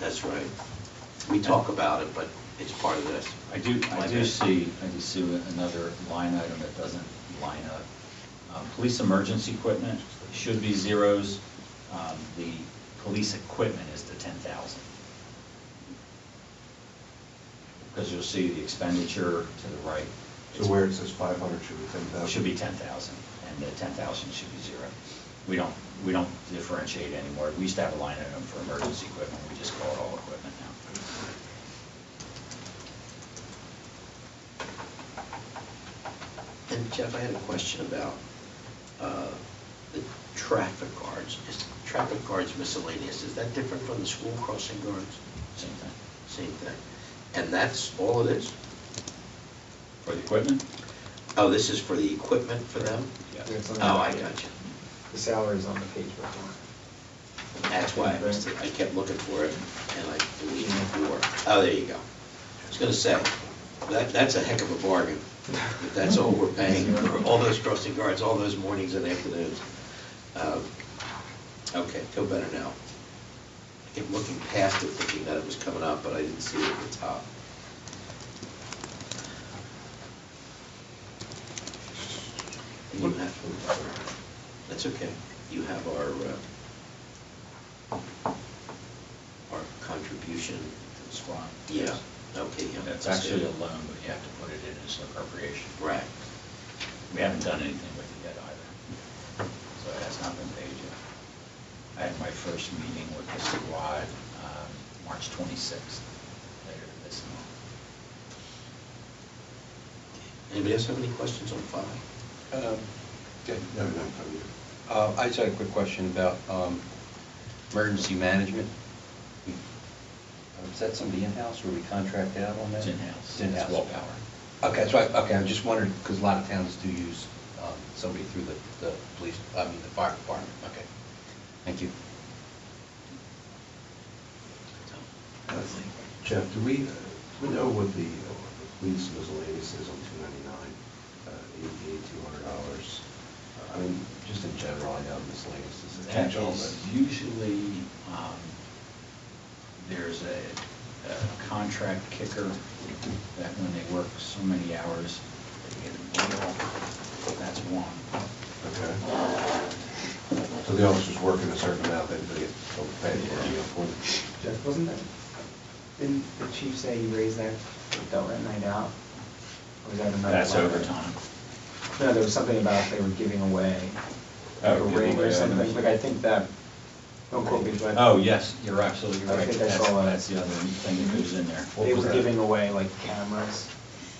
That's right. We talk about it, but it's part of this. I do, I My do bad. see, I do see another line item that doesn't line up. Um, Police emergency equipment should be zeros. Um, The police equipment is the ten thousand. Because you'll see the expenditure to the right. So where it says 500 should be 10,000? Should be ten thousand, and the ten thousand should be zero. We don't, we don't differentiate anymore. We used to have a line item for emergency equipment, we just call it all equipment now. And Jeff, I had a question about uh, the traffic guards. Is traffic guards miscellaneous? Is that different from the school crossing guards? Same thing. Same thing. And that's all it is? For the equipment? Oh, this is for the equipment for them? Yes. It's on the- Oh, I got you. The salary's on the page before. That's why I missed it. I kept looking for it, and I deleted before. Oh, there you go. I was gonna say, that, that's a heck of a bargain, if that's all we're paying for all those crossing guards, all those mornings and afternoons. Um, Okay, feel better now. I kept looking past it, thinking that it was coming up, but I didn't see it at the top. And you have, that's okay. You have our, uh, our contribution. To the squad. Yeah, okay, yeah. That's actually a loan, but you have to put it in as an appropriation. Right. We haven't done anything with it yet either, so it has not been paid yet. I had my first meeting with the squad, um, March 26th, later this month. Anybody else have any questions on five? Um, No, no, no. uh, I just had a quick question about um, emergency management. Uh, Is that somebody in-house or we contract out on that? It's in-house, It's it's in-house. willpower. Okay, so I, okay, I just wondered, because a lot of towns do use um, somebody through the, the police, I mean, the fire department. Okay. Thank you. Uh, Jeff, do we, uh, do we know what the uh, police miscellaneous is on 299, uh, $88, $200? Uh, I mean, just in general, I know miscellaneous is a That catch-all, is but... usually, um, there's a, a contract kicker that when they work so many hours, they get a deal. That's one. Okay. So the officers working a certain amount, then they get told to pay for it, you know, for them. Jeff, wasn't that, didn't the chief say you raised that, that rent night out? Or was that another? That's line? overtime. No, there was something about they were giving away. Oh, a giving ring away Or something, items. like I think that, don't quote me, but. Oh, yes, you're absolutely I right. think I That's, saw that. that's the other thing that goes in there. They was were that? giving away like cameras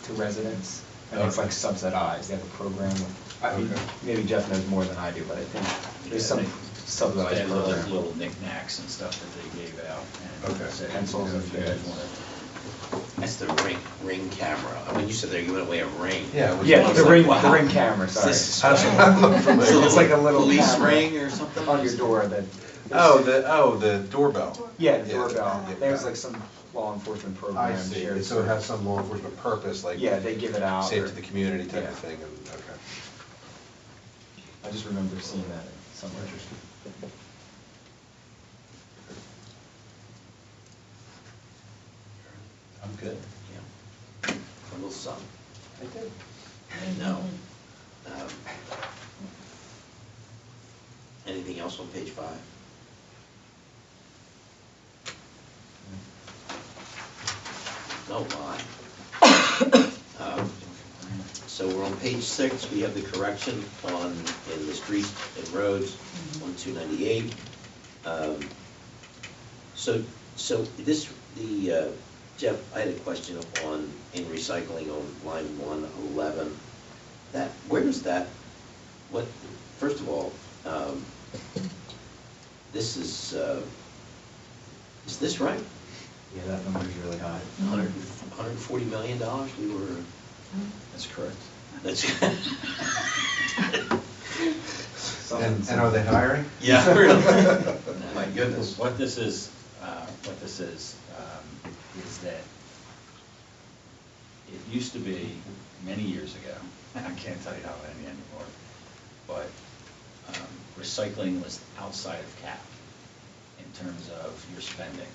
to residents, and it's like subsidized, they have a program with, I mean, Okay. maybe Jeff knows more than I do, but I think there's some Yeah, they- They subsidized had little, program. little knickknacks and stuff that they gave out. and Okay. said, Pencils and if you guys things. want it. That's the ring, ring camera. I mean, you said they're giving away a ring. Yeah, it was- Yeah, the It's like, ring, the wow. ring camera, sorry. This I is- was- I'm not familiar. So It's like a little Police camera. ring or something? On your door that. Oh, the, oh, the doorbell. Yeah, the doorbell. yeah, There's yeah. like some law enforcement program. I see, shared And so it has service. some law enforcement purpose, like. Yeah, they give it out Safe or- to the community type Yeah. of thing, and, okay. I just remember seeing that somewhere. I'm good. Yeah. A little something. I did. I know. Um, Anything else on page five? No lie. Um, So we're on page six, we have the correction on, in the streets and roads, on two ninety-eight. So, so this, the, uh, Jeff, I had a question on, in recycling on line one eleven. That, where does that, what, first of all, um, this is, uh, is this right? Yeah, that number's really high. Hundred, hundred and forty million dollars we were, That's correct. that's. And, and are they hiring? Yeah, really. My goodness. What this is, uh, what this is, um, is that it used to be many years ago, and I can't tell you how many anymore, but um, recycling was outside of cap in terms of your spending.